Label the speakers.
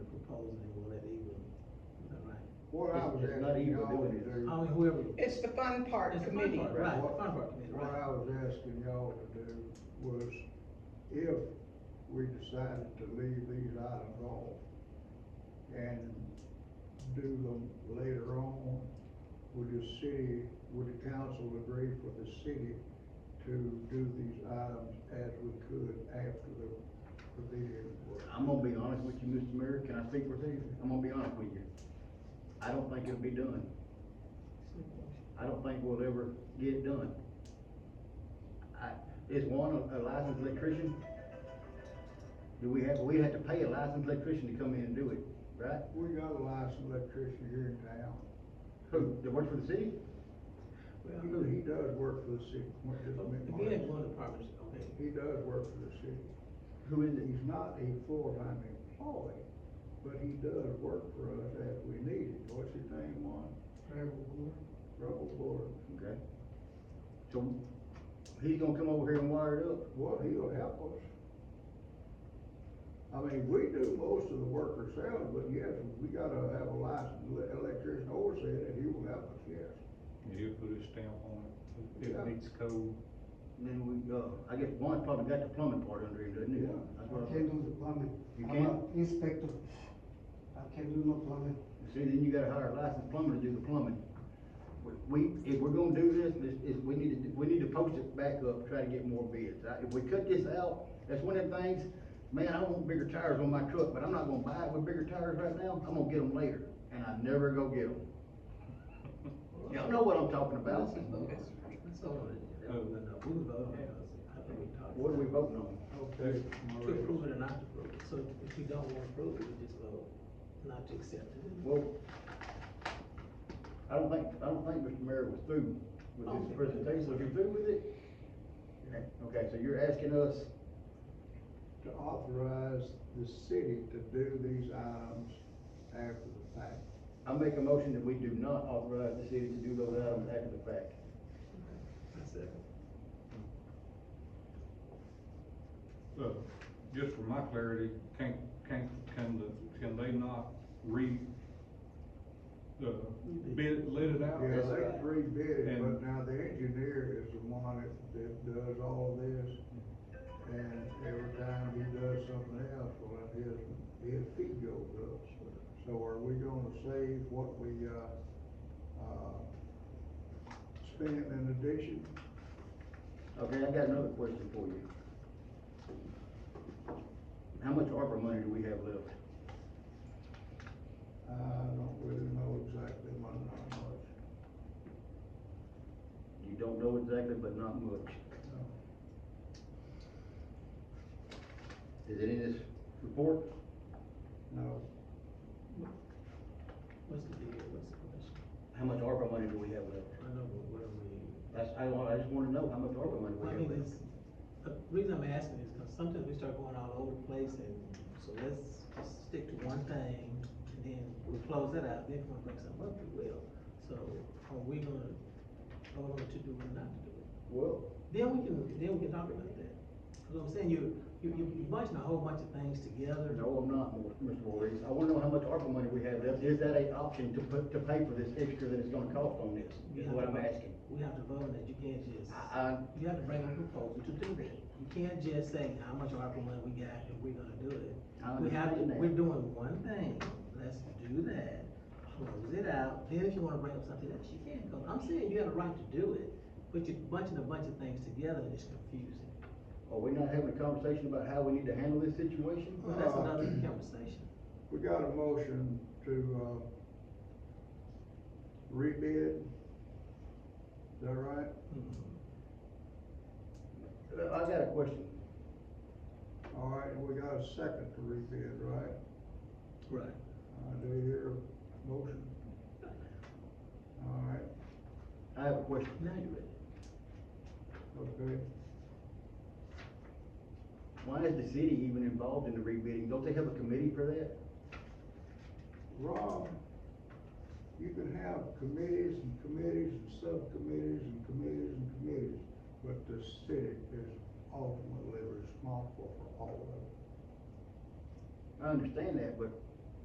Speaker 1: calling anyone at evil. Is that right?
Speaker 2: What I was
Speaker 3: It's- it's not
Speaker 2: asking
Speaker 3: evil
Speaker 2: y'all to
Speaker 3: doing it.
Speaker 2: do.
Speaker 1: I mean, Oh, whoever.
Speaker 4: It's the fun part
Speaker 1: It's the fun
Speaker 4: committee.
Speaker 1: part, Right,
Speaker 2: What-
Speaker 1: fund part committee,
Speaker 2: What
Speaker 1: right.
Speaker 2: I was asking y'all to do was if we decided to leave these items off and do them later on, would the city, would the council agree for the city to do these items as we could after the pavilion was?
Speaker 3: I'm gonna be honest with you, Mr. Mayor, can I speak for you? I'm gonna be honest with you. I don't think it'll be done. I don't think we'll ever get it done. I, is one a- a licensed electrician? Do we have, we had to pay a licensed electrician to come in and do it, right?
Speaker 2: We got a licensed electrician here in town.
Speaker 3: Who, that works for the city?
Speaker 2: You know, he does work for the city. What does it mean?
Speaker 1: If we had one department, okay.
Speaker 2: He does work for the city.
Speaker 3: Who is it?
Speaker 2: He's not a full-time employee, but he does work for us as we need it. What's his name, Juan? Rebel Gordon.
Speaker 3: Okay. So, he's gonna come over here and wire it up?
Speaker 2: Well, he'll help us. I mean, we do most of the work ourselves, but yes, we gotta have a licensed le- electrician overseeing it. He will help us, yes.
Speaker 5: Yeah, He'll put his stamp on it,
Speaker 2: Yeah.
Speaker 5: it needs code.
Speaker 3: And Then we, uh, I guess Juan's probably got the plumbing part under him, doesn't he?
Speaker 2: Yeah.
Speaker 3: That's what
Speaker 6: I
Speaker 3: I-
Speaker 6: can't do the plumbing.
Speaker 3: You
Speaker 6: I'm a
Speaker 3: can't?
Speaker 6: Inspector. I can't do no plumbing.
Speaker 3: See, then you gotta hire a licensed plumber to do the plumbing. We- We, if we're gonna do this, this, is, we need to, do- we need to post it back up, try to get more bids. I- If we cut this out, that's one of the things, man, I want bigger tires on my truck, but I'm not gonna buy it with bigger tires right now, I'm gonna get them later, and I never go get them. Y'all know what I'm talking about.
Speaker 1: That's all it is. No, no, no, we vote on it. I think we talked.
Speaker 3: Oh. What are we voting on?
Speaker 2: Okay.
Speaker 1: To approve it or not to approve it. So if we don't want to approve it, we just vote not to accept it.
Speaker 3: Well, I don't think, I don't think Mr. Mayor was through with this presentation, was you through with it? Okay, so you're asking us
Speaker 2: to authorize the city to do these items after the fact.
Speaker 3: I make a motion that we do not authorize the city to do those items after the fact.
Speaker 1: That's it.
Speaker 5: Uh, just for my clarity, can, can, can the, can they not re, uh, bid, let it out?
Speaker 2: Yeah,
Speaker 3: That's
Speaker 2: they
Speaker 3: right.
Speaker 2: rebid it, but
Speaker 5: And-
Speaker 2: now the engineer is the one that, that does all this. And every time he does something else, well, his, his fee goes up. So are we gonna save what we, uh, uh, spent in addition?
Speaker 3: Okay, I got another question for you. How much ARPA money do we have left?
Speaker 2: I don't really know exactly what, how much.
Speaker 3: You don't know exactly, but not much.
Speaker 2: No.
Speaker 3: Is it in this report?
Speaker 2: No,
Speaker 1: What's the deal? What's the question?
Speaker 3: How much ARPA money do we have left?
Speaker 1: I know, but what are we?
Speaker 3: That's, I, want- I just wanna know how much ARPA money we
Speaker 1: I
Speaker 3: have
Speaker 1: mean,
Speaker 3: left.
Speaker 1: it's, the reason I'm asking is because sometimes we start going all over the place and, so let's just stick to one thing, and then we close that out, then if we wanna bring something up, we will. So, are we gonna, are we to do or not to do it?
Speaker 3: Well,
Speaker 1: Then we can, then we can talk about that. Cause I'm saying, you, you, you- you're bunching a whole bunch of things together.
Speaker 3: no, I'm not, Mr. Voorhees. I wanna know how much ARPA money we have left. Is that an option to put, to pay for this extra that it's gonna cost on this?
Speaker 1: We
Speaker 3: Is
Speaker 1: have
Speaker 3: what
Speaker 1: to
Speaker 3: I'm
Speaker 1: vote-
Speaker 3: asking.
Speaker 1: We have to vote on that, you can't just,
Speaker 3: I, I,
Speaker 1: you have to bring a proposal to do that. You can't just say how much ARPA money we got and we're gonna do it.
Speaker 3: I
Speaker 1: We have,
Speaker 3: understand that.
Speaker 1: we're doing one thing, let's do that, close it out, then if you wanna bring up something else, you can, go. I'm saying you have a right to do it, but you're bunching a bunch of things together and it's confusing.
Speaker 3: Are we not having a conversation about how we need to handle this situation?
Speaker 1: Well, that's
Speaker 2: Uh,
Speaker 1: another conversation.
Speaker 2: we got a motion to, uh, rebid. Is that right?
Speaker 1: Mm-hmm.
Speaker 3: Uh, I got a question.
Speaker 2: All right, and we got a second to rebid, right?
Speaker 1: Right.
Speaker 2: Uh, do you hear a motion? All right,
Speaker 3: I have a question.
Speaker 1: Now you're ready.
Speaker 2: okay.
Speaker 3: Why is the city even involved in the rebidding? Don't they have a committee for that?
Speaker 2: Rob, you can have committees and committees and subcommittees and committees and committees, but the city is ultimately responsible for all of it.
Speaker 3: I understand that, but